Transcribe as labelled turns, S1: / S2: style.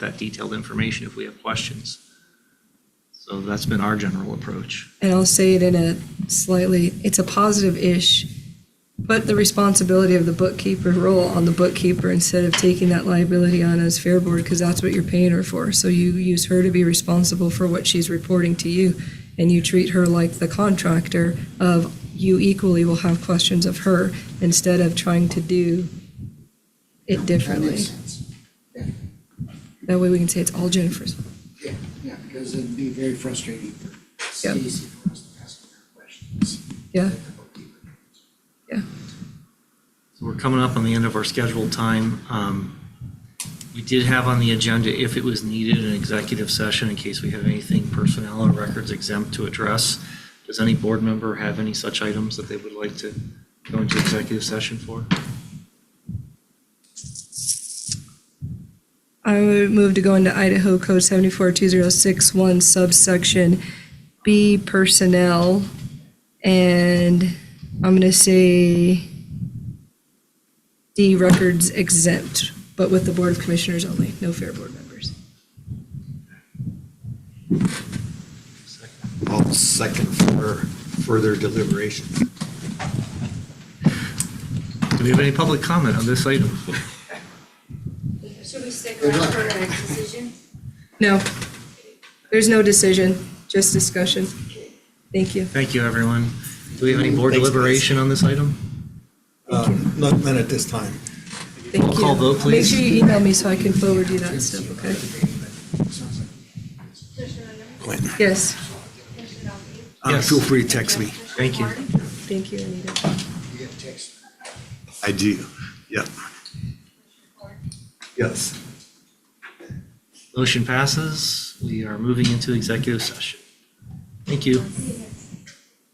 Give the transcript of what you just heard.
S1: that detailed information if we have questions. So that's been our general approach.
S2: And I'll say it in a slightly, it's a positive-ish, put the responsibility of the bookkeeper role on the bookkeeper instead of taking that liability on as Fair Board, because that's what you're paying her for. So you use her to be responsible for what she's reporting to you, and you treat her like the contractor of you equally will have questions of her instead of trying to do it
S3: That
S2: differently.
S3: makes sense.
S2: That way we can say it's all Jennifer's.
S3: Yeah, yeah, because it'd be very frustrating for
S2: Yeah.
S3: Stacy for us to ask her questions.
S2: Yeah.
S3: that the bookkeeper knows.
S1: So we're coming up on the end of our scheduled time. Um, We did have on the agenda, if it was needed, an executive session in case we have anything personnel or records exempt to address. Does any board member have any such items that they would like to go into executive session for?
S2: I would move to go into Idaho Code 742061 subsection B personnel. And I'm going to say D records exempt, but with the Board of Commissioners only, no fair board members.
S4: I'll second for further deliberation.
S1: Do we have any public comment on this item?
S5: Should we stick around for the next decision?
S2: No, there's no decision, just discussion. Thank you.
S1: Thank you, everyone. Do we have any board
S4: Thanks, guys.
S1: deliberation on this item?
S4: Um, Not, not at this time.
S2: Thank
S1: Roll call
S2: you.
S1: vote, please.
S2: Make sure you email me so I can forward you that stuff, okay?
S3: Sounds like.
S4: Glenn,
S2: Yes,
S4: uh,
S1: Yes.
S4: feel free to text me.
S1: Thank you.
S2: thank you, Anita.
S3: You get text.
S4: I do. Yep. Yes.
S1: Motion passes. We are moving into executive session. Thank you.